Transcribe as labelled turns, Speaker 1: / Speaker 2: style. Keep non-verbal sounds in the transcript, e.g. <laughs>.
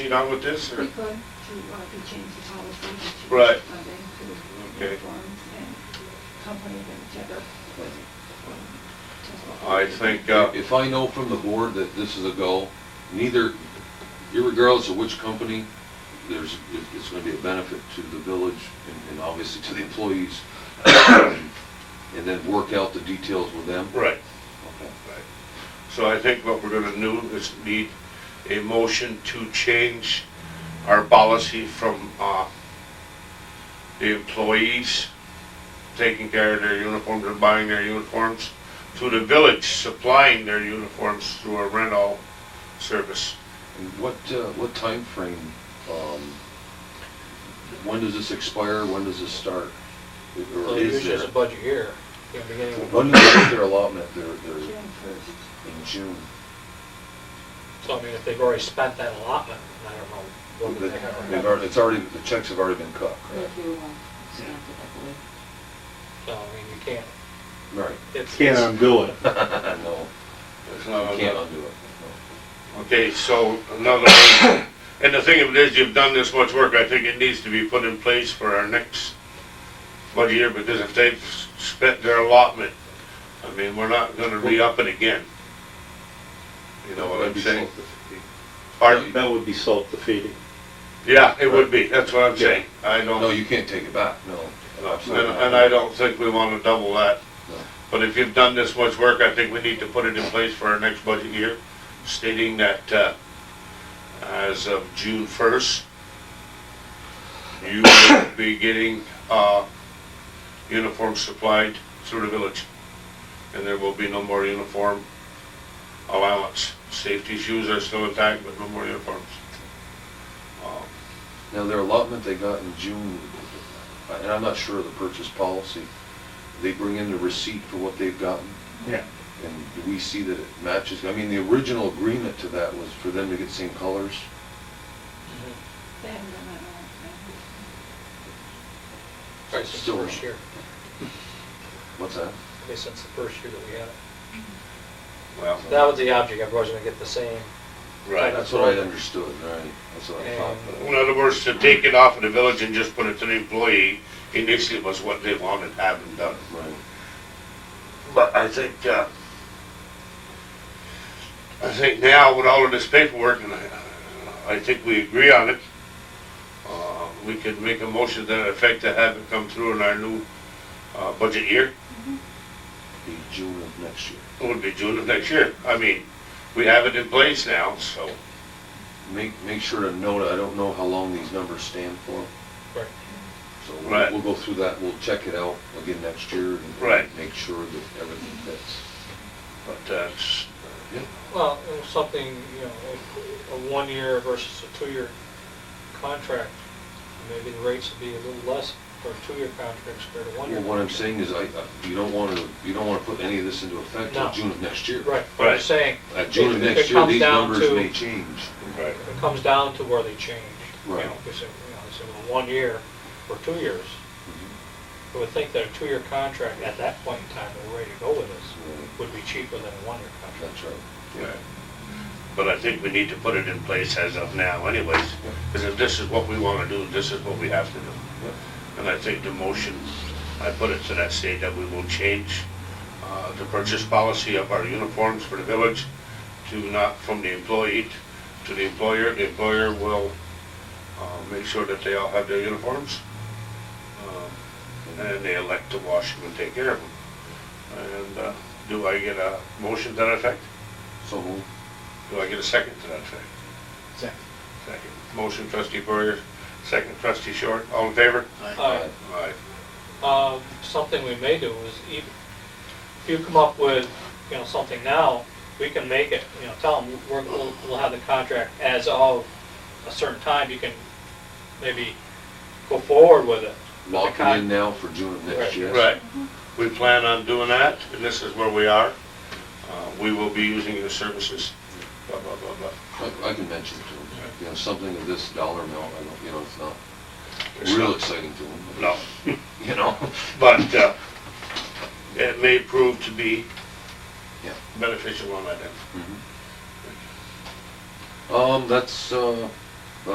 Speaker 1: You done with this,
Speaker 2: We
Speaker 1: or?
Speaker 2: could, to, uh, to change the policy to.
Speaker 1: Right.
Speaker 2: Funding to
Speaker 1: Okay.
Speaker 2: uniforms and companies and together with. um,
Speaker 1: I think, uh,
Speaker 3: If I know from the board that this is a goal, neither, irregardless of which company, there's, it- it's gonna be a benefit to the village and- and obviously to the employees. <coughs> And then work out the details with them.
Speaker 1: right,
Speaker 3: Okay.
Speaker 1: right. So I think what we're gonna do is need a motion to change our policy from, uh, the employees taking care of their uniforms and buying their uniforms to the village supplying their uniforms through a rental service.
Speaker 3: And what, uh, what timeframe, um, when does this expire, when does this start? Or
Speaker 4: Well,
Speaker 3: is
Speaker 4: usually it's
Speaker 3: there,
Speaker 4: a budget year, you know, beginning of,
Speaker 3: when do they get their allotment, their, their,
Speaker 2: June first.
Speaker 3: in June?
Speaker 4: so I mean, if they've already spent that allotment, I don't know. what would they have
Speaker 3: They've already, it's already, the checks have already been cut,
Speaker 5: If
Speaker 3: correct?
Speaker 5: you want to stamp it, I believe.
Speaker 4: So, I mean, you can't,
Speaker 3: Right.
Speaker 4: it's.
Speaker 6: Can't
Speaker 3: um,
Speaker 6: undo it.
Speaker 3: <laughs> No,
Speaker 1: It's
Speaker 3: you
Speaker 1: not-
Speaker 3: can't undo it.
Speaker 1: Okay, so another, one. <coughs> and the thing of it is, you've done this much work, I think it needs to be put in place for our next budget year, because if they've s- spent their allotment, I mean, we're not gonna re-up it again. You know what I'm saying? Pardon?
Speaker 6: That would be self-defeating.
Speaker 1: Yeah, it would be, that's what I'm saying, I
Speaker 3: No,
Speaker 1: don't,
Speaker 3: you can't take it back, no.
Speaker 1: and, and I don't think we wanna double that.
Speaker 3: No.
Speaker 1: But if you've done this much work, I think we need to put it in place for our next budget year, stating that, uh, as of June first, you will be getting, uh, uniforms supplied through the village. And there will be no more uniform allowance. Safety shoes are still intact, but no more uniforms. Uh,
Speaker 3: Now, their allotment they got in June, and I'm not sure of the purchase policy, they bring in the receipt for what they've gotten?
Speaker 6: Yeah.
Speaker 3: And do we see that it matches? I mean, the original agreement to that was for them to get same colors.
Speaker 4: Mhm.
Speaker 2: They haven't done that in
Speaker 4: Right, since the
Speaker 3: Still
Speaker 4: first
Speaker 3: wrong.
Speaker 4: year,
Speaker 3: What's that?
Speaker 4: at least since the first year that we had it.
Speaker 1: Well,
Speaker 4: That was the object, everybody's gonna get the same.
Speaker 1: right.
Speaker 3: That's what I understood, right? That's what I thought. but-
Speaker 1: In other words, to take it off of the village and just put it to the employee initially was what they wanted having done.
Speaker 3: Right.
Speaker 1: But I think, uh, I think now with all of this paperwork, and I, I think we agree on it, uh, we could make a motion to that effect to have it come through in our new, uh, budget year.
Speaker 3: Be June of next year.
Speaker 1: It would be June of next year. I mean, we have it in place now, so.
Speaker 3: Make, make sure to note, I don't know how long these numbers stand for.
Speaker 4: Right.
Speaker 3: So we'll-
Speaker 1: Right.
Speaker 3: we'll go through that, we'll check it out again next year and
Speaker 1: Right.
Speaker 3: make sure that everything fits.
Speaker 1: But, uh, it's-
Speaker 4: Well, it was something, you know, a- a one-year versus a two-year contract, maybe the rates would be a little less for a two-year contract compared to one-year.
Speaker 3: Well, what I'm saying
Speaker 4: contract.
Speaker 3: is I, I- you don't wanna, you don't wanna put any of this into effect till
Speaker 4: No.
Speaker 3: June of next year.
Speaker 4: Right, but I'm
Speaker 1: Right.
Speaker 4: saying,
Speaker 3: At Uh, June of
Speaker 4: It- it
Speaker 3: next year,
Speaker 4: comes
Speaker 3: these
Speaker 4: down
Speaker 3: numbers
Speaker 4: to-
Speaker 3: may change.
Speaker 1: right.
Speaker 4: It comes down to where they change. you know,
Speaker 3: Right.
Speaker 4: if it's, you know, it's a one year or two years.
Speaker 3: Mm-hmm.
Speaker 4: I would think that a two-year contract at that point in time, the way to go with this would be cheaper than a one-year contract.
Speaker 3: That's right.
Speaker 1: Right. But I think we need to put it in place as of now anyways, because if this is what we want to do, this is what we have to do. And I think the motion, I put it to that state that we will change uh, the purchase policy of our uniforms for the village to not from the employee to the employer. The employer will uh, make sure that they all have their uniforms. um, And then they elect to wash them and take care of them. And uh, do I get a motion to that effect?
Speaker 3: So moved.
Speaker 1: Do I get a second to that effect?
Speaker 4: Second.
Speaker 1: Second. Motion trustee Berger, second trustee Short, all in favor?
Speaker 4: All
Speaker 1: Aye.
Speaker 4: right, um, something we may do is if, if you come up with, you know, something now, we can make it, you know, tell them, we're, we'll, we'll have the contract as of a certain time, you can maybe go forward with it.
Speaker 3: Lock it in now for June of
Speaker 4: Right.
Speaker 3: next year.
Speaker 1: Right. We plan on doing that, and this is where we are. Uh, We will be using your services, blah, blah, blah, blah.
Speaker 3: I, I can mention to them, you know, something of this dollar amount, I don't, you know, it's not
Speaker 1: It's
Speaker 3: real
Speaker 1: not-
Speaker 3: exciting to them.
Speaker 1: No,
Speaker 3: You
Speaker 1: <laughs>
Speaker 3: know?
Speaker 1: but uh, it may prove to be
Speaker 3: Yeah.
Speaker 1: beneficial on that end.
Speaker 3: Mm-hmm. Um, that's, uh,